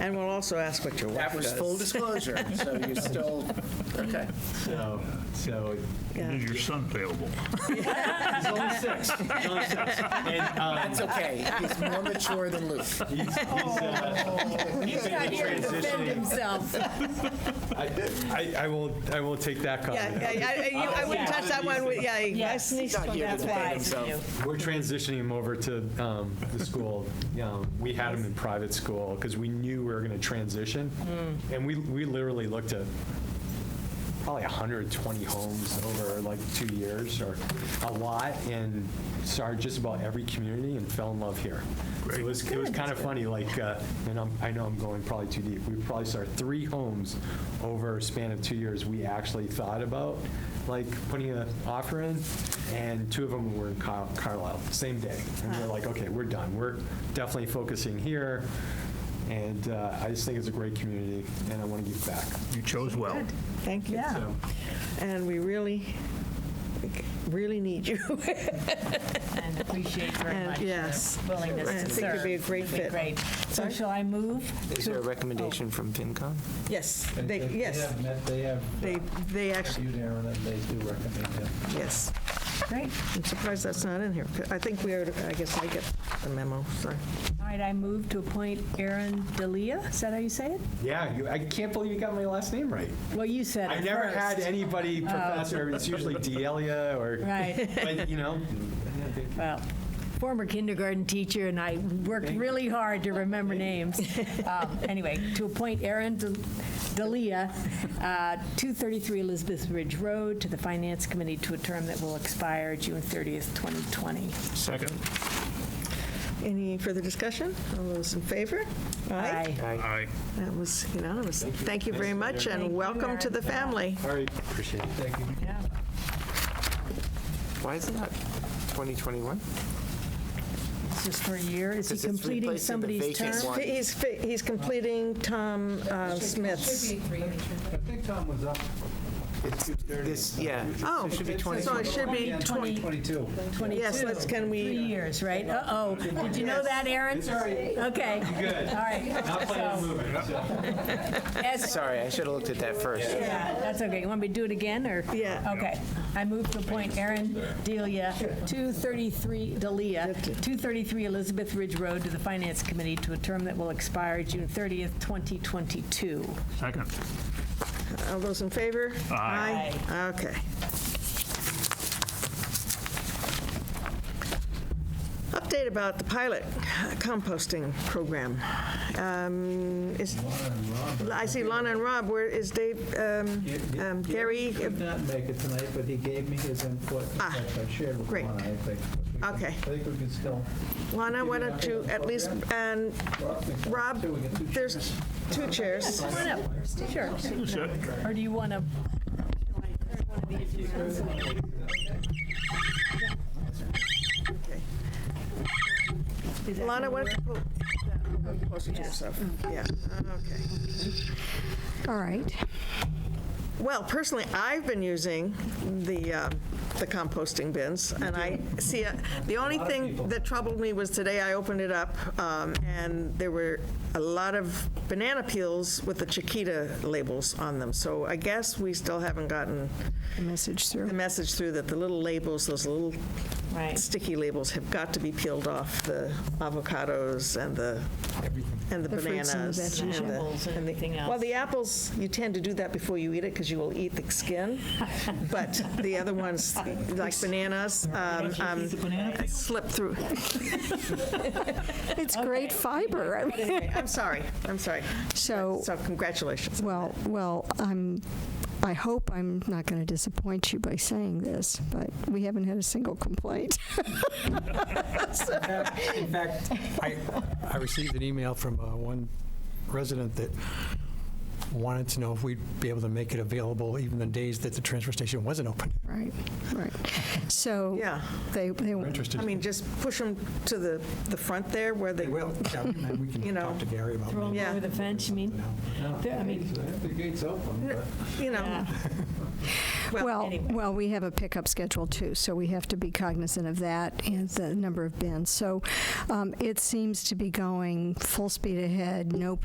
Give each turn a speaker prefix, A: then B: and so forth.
A: And we'll also ask what your wife
B: That was
A: does.
B: full disclosure, so you still, okay. So, so
A: Yeah.
C: Is your son available?
B: he's only six. He's only six. And, um, That's okay. He's more mature than Luke.
D: He's, he's, uh, he's been transitioning.
E: himself.
D: I, I, I won't. I won't take that comment.
A: Yeah, yeah, yeah, I- you- I wouldn't touch that one, with- yeah.
F: Yes,
B: Not here to
F: that's
B: defend
F: wise of
B: himself.
F: you.
D: We're transitioning him over to um, the school. Um, we had him in private school because we knew we were going to transition,
A: Mm.
D: and we we literally looked at probably 120 homes over like two years or a lot, and started just about every community and fell in love here. It was it was kind of funny. Like, uh, and I'm, I know I'm going probably too deep. We probably started three homes over a span of two years. We actually thought about like putting an offer in, and two of them were in Car- Carlisle, same day. And we're like, okay, we're done. We're definitely focusing here. And uh, I just think it's a great community, and I want to give back.
C: You chose well.
A: Thank you.
F: Yeah.
D: So
A: And we really, really need you.
F: And appreciate very
A: And
F: much
A: yes.
F: your willingness
A: I
F: to
A: think
F: serve.
A: it'd be a great
F: It'd be
A: fit.
F: great. So shall I move?
B: Is there a recommendation from FinCom?
A: Yes, they, yes,
G: have met- They have
A: they, they actually,
G: viewed Aaron, and they do recommend him.
A: yes.
F: Great.
A: I'm surprised that's not in here. I think we are, I guess I get the memo, sorry.
F: All right, I move to appoint Aaron Dalia. Is that how you say it?
D: yeah, you, I can't believe you got my last name right.
F: Well, you said it
D: I never
F: first.
D: had anybody professor. It's usually Delia or,
F: Right,
D: but you know,
F: well, former kindergarten teacher, and I worked really hard to remember names. Um, Anyway, to appoint Aaron Dal- Dalia, uh, 233 Elizabeth Ridge Road, to the Finance Committee to a term that will expire June 30th, 2020.
C: Second.
A: Any further discussion? All those in favor?
F: Aye.
C: Aye.
A: That was unanimous. Thank you very much,
F: Thank
A: and
F: you,
A: welcome to
F: Aaron.
A: the family.
D: all right, appreciate it.
F: Yeah.
B: Why is it not 2021?
F: It's just for a year? Is he
B: Because it's
F: completing
B: replacing the
F: somebody's
B: vacant
F: term?
B: one.
A: He's, fi- he's completing Tom uh, Smith's.
G: I think Tom was up. It's 2:30.
B: This, yeah.
A: Oh,
G: It
B: should be
G: says
B: 20.
A: so it should be
G: Yeah,
A: 20.
G: 2022.
A: Yes, let's, can
F: Three
A: we,
F: years, right? Uh-oh, did you know that, Aaron? Okay.
D: Good.
F: All right.
D: Not playing
F: So,
D: moving. So.
F: as-
B: Sorry, I should have looked at that first.
F: Yeah, that's okay. You want me to do it again, or?
A: Yeah.
F: Okay. I move to appoint Aaron Delia, 233, Delia, 233 Elizabeth Ridge Road to the Finance Committee to a term that will expire June 30th, 2022.
C: Second.
A: uh, all those in favor?
C: Aye.
A: Okay. Update about the pilot composting program. Um, is- I see Lana and Rob, where is Dave, um,
G: Yeah, yeah,
A: um, Gary?
G: Could not make it tonight, but he gave me his input, which
A: Ah,
G: I shared with
A: great.
G: Lana, I think. We can-
A: Okay.
G: I think we can still,
A: Lana, why don't you at least, and
G: Rob, we can-
A: Rob,
G: too, we get two
A: there's two chairs.
F: Come on up. Sure.
C: Who's that?
F: Or do you want to?
A: Lana, why don't you pull that closer to yourself? Yeah, okay.
H: All right.
A: Well, personally, I've been using the, uh, the composting bins, and I see, uh, the only thing that troubled me was today I opened it up, um, and there were a lot of banana peels with the Chiquita labels on them, so I guess we still haven't gotten
H: The message
A: the
H: through.
A: message through that the little labels, those little
F: Right.
A: sticky labels have got to be peeled off the avocados and the, and the
H: The fruits and the
A: bananas.
H: veggies,
A: and the-
F: Apples and everything else.
A: Well, the apples, you tend to do that before you eat it because you will eat the skin. But the other ones, like bananas, um, um, slip through.
H: It's great fiber. I mean,
A: Anyway, I'm sorry, I'm sorry.
H: So,
A: So congratulations.
H: well, well, I'm, I hope I'm not going to disappoint you by saying this, but we haven't had a single complaint.
I: In fact, I, I received an email from uh, one resident that wanted to know if we'd be able to make it available even the days that the transfer station wasn't open.
H: Right, right. So.
A: Yeah.
H: They, they,
I: We're interested.
A: I mean, just push them to the, the front there where they,
I: Well, yeah, and we
A: You
I: can
A: know,
I: talk to Gary about maybe
A: yeah.
F: Over the fence, you mean? There- I mean,
G: I think the gate's open, but.
A: you know,
F: yeah.
H: well,
F: anyway.
H: well, we have a pickup schedule too, so we have to be cognizant of that and the number of bins. So um, it seems to be going full speed ahead, no